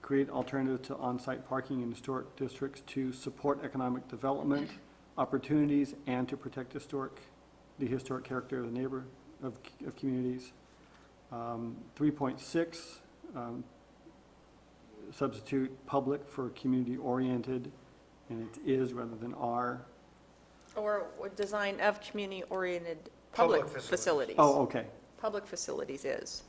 create alternative to on-site parking in historic districts to support economic development opportunities and to protect historic, the historic character of the neighbor, of, of communities. Um, 3.6, um, substitute public for community-oriented, and it is rather than are. Or or design of community-oriented Public public facilities. facilities. Oh, okay, Public facilities is,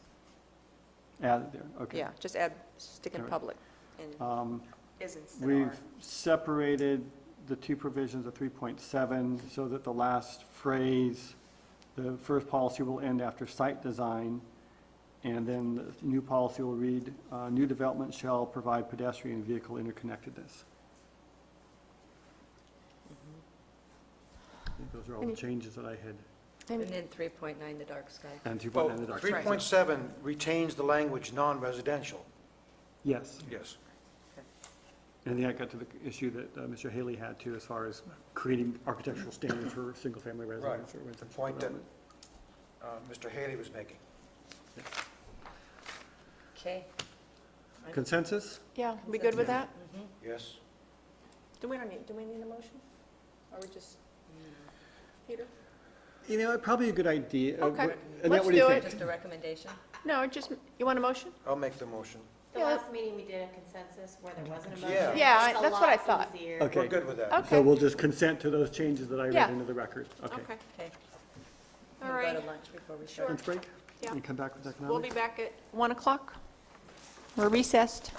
added there, okay. yeah, just add, stick in Alright. public, and Um, is instead of We've are. separated the two provisions of 3.7 so that the last phrase, the first policy will end after site design, and then the new policy will read, uh, "New development shall provide pedestrian and vehicle interconnectedness." I think Those are all the changes that I had, And then 3.9, the dark sky. and Well, 2.9 that are. 3.7 retains the language non-residential. Yes, Yes. and then I got to the issue that uh, Mr. Haley had too, as far as creating architectural standards for single-family residence or The residential point that development. uh, Mr. Haley was making. Okay. Consensus? Yeah, we good with that? Yes. Do we, don't need- do we need a motion? Or we just, Peter? You know, probably a good idea. Uh, Okay, wh- Annette, let's what do you do think? Just a recommendation? No, just, you want a motion? I'll make the motion. The Yeah. last meeting, we did a consensus where there wasn't a motion. Yeah. Yeah, I- It's a that's what I lot thought. easier. Okay. We're good with that. Okay. So we'll just consent to those changes that I read Yeah. into the record. Okay. Okay. All We'll right. go to lunch before we start. Lunch break? Yeah. And come back with economics? We'll be back at 1 o'clock. We're recessed.